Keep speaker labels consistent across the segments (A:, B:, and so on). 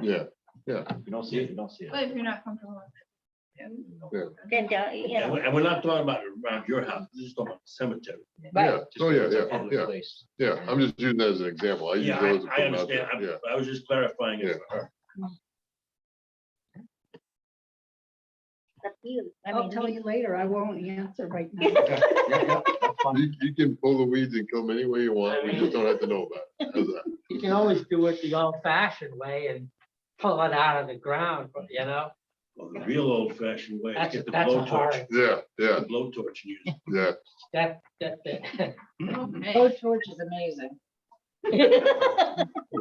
A: Yeah,
B: If you don't see it, you don't see it.
C: But if you're not comfortable with it.
D: Then, don't, you
E: And
D: know,
E: we're and we're not talking about around your house, this is talking about the cemetery.
D: right,
A: yeah, oh, yeah,
B: It's a
A: yeah,
B: public
A: yeah,
B: place.
A: yeah, I'm just using that as an example. I use
E: Yeah,
A: those.
E: I, I understand.
A: Yeah,
E: I- I was just clarifying
A: yeah,
E: it.
D: it's up to you. I
F: I'll
D: mean,
F: tell
D: we-
F: you later. I won't answer right now.
B: Yeah, yeah, yeah, that's fine.
A: you, you can pull the weeds and kill them any way you want, we just don't have to know about it. How's that?
G: You can always do it the old fashioned way and pull it out of the ground, but you know,
E: Well, The real old fashioned way, is
G: that's,
E: get the
G: that's a
E: blowtorch,
G: hard,
A: Yeah, yeah,
E: the blowtorch and use it.
A: yeah,
G: that, that, that.
F: Oh, George is amazing.
E: It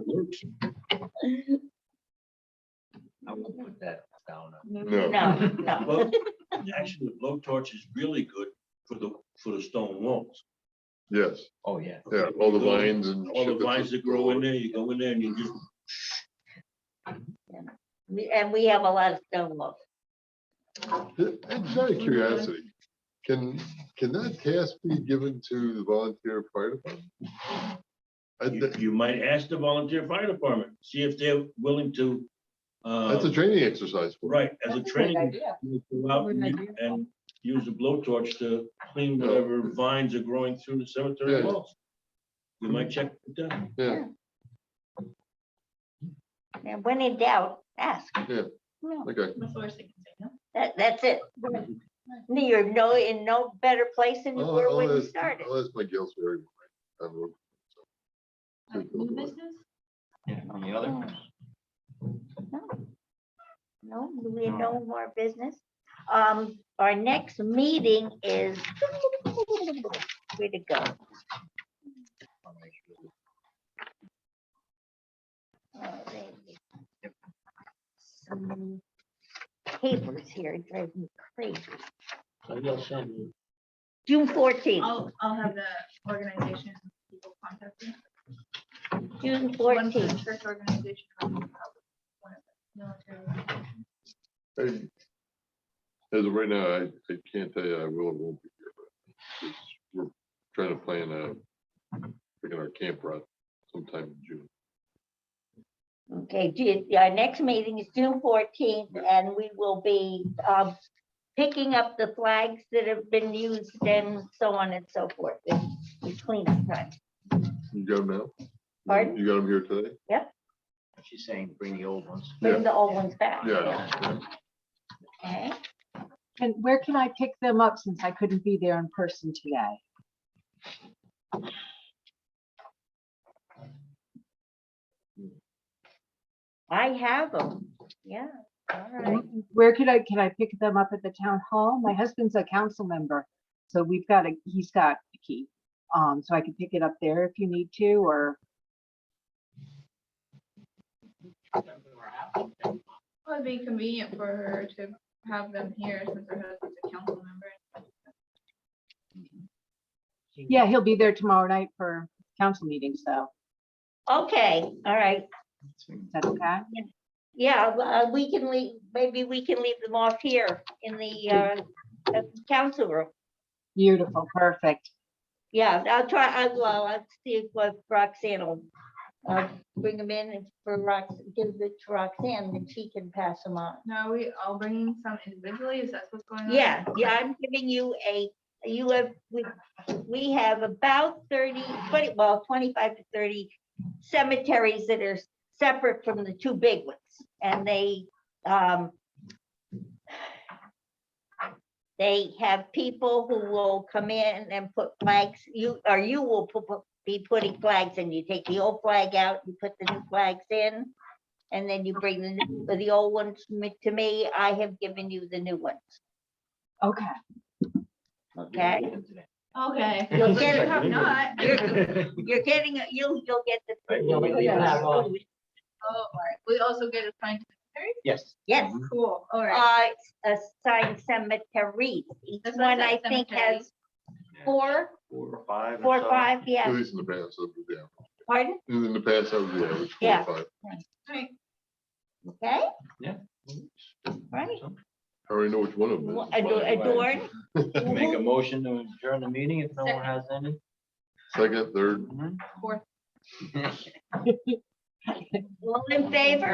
E: works.
B: I won't put that down.
A: no.
E: Mm-hmm.
D: No, no,
E: Well, Actually, the blowtorch is really good for the, for the stone walls.
A: Yes,
B: Oh, yeah.
A: yeah, all the vines and.
E: All
A: shit
E: the vines that grow in
A: that's-
E: there, you go in there and you just,
D: We- and we have a lot of stone walls.
A: It's out of
E: Mm-hmm.
A: curiosity, can, can that task be given to the volunteer fire department? I
E: you-
A: thi-
E: you might ask the volunteer fire department, see if they're willing to. uh,
A: That's a training exercise. for
E: Right, as a
F: That's
E: training.
F: good idea.
E: you go out
F: Good
E: and
F: idea.
E: you- And use a blowtorch to clean
A: No.
E: whatever vines are growing through the cemetery
A: Yeah.
E: walls. You might check it down.
A: them. Yeah,
D: And when in doubt, ask.
A: okay,
C: That's the worst thing to say, no?
D: That, that's it. You're no, in no better place than you
A: I'll,
D: were when
A: I'll
D: you
A: ask,
D: started.
A: I'll ask my Gales. Ferry. I'm a-
C: Like, New business?
B: Yeah, on the
D: Oh.
B: other.
D: No, we have no more business. Um, our next meeting is, where to go? Oh, there it is. So many Papers here, it drives me crazy. June fourteenth,
C: I'll, I'll have the organization people contact you.
D: June
C: One for the
D: fourteenth.
C: Church organization. one for the military organization.
A: I- As of right now, I, I can't tell you, I will or won't be here, but it's- we're trying to plan a, picking our camp route sometime in June.
D: Okay, Ju- our next meeting is June fourteenth, and we will be um, picking up the flags that have been used and so on and so forth. It's cleanup time.
A: You got them now?
D: Pardon?
A: You got them here today?
B: She's saying bring the old ones.
D: Bring the old ones back.
A: Yeah.
D: Okay.
F: And where can I pick them up since I couldn't be there in person today?
D: I have them. Yeah. All right.
F: Where could I, can I pick them up at the town hall? My husband's a council member, so we've got a, he's got a key. Um, so I can pick it up there if you need to, or
C: Well, it'd be convenient for her to have them here since her husband's a council member.
F: Yeah, he'll be there tomorrow night for council meeting, so
D: Okay. All right.
F: is that okay?
D: Yeah, uh, we can leave, maybe we can leave them off here in the uh, uh, council room.
F: Beautiful, perfect.
D: Yeah, I'll try, I'll, well, I'll see what Roxanne will, uh, bring them in and for Rox, give it to Roxanne, and she can pass them on.
C: No, are we all bringing some individually? Is that what's going on?
D: Yeah, yeah, I'm giving you a, you have, we, we have about 30, 20 well, twenty-five to thirty cemeteries that are separate from the two big ones, and they, um, they have people who will come in and put flags, you, or you will pu- pu- be putting flags, and you take the old flag out, you put the new flags in, and then you bring the, new- the old ones me- to me, I have given you the new ones.
F: Okay.
D: Okay,
C: Okay.
D: You'll
C: But
D: get
C: you
D: it.
C: have not. oh,
D: You're getting, it- you'll, you'll get
G: Yeah, we leave that
D: the.
G: alone.
C: Oh, all right. We also get a sign.
B: Yes.
D: Yes,
C: Cool. All right.
D: uh, assigned cemeteries. Each
C: That's what I
D: one I
C: said,
D: think
C: cemetery.
D: has four,
B: Four or five. or
D: four,
B: so.
D: five,
A: At
D: yeah,
A: least in the past, that was the average.
D: pardon,
A: in the past, that was the average. four or
D: Yeah.
A: five.
C: All right.
D: okay? Right.
B: Right.
A: I already know which one of them.
D: Wa-
A: is.
D: ado-
B: way.
D: Adorn,
B: Make a motion to adjourn the meeting if no one has any.
A: Second, third.
C: Fourth.
D: all in favor?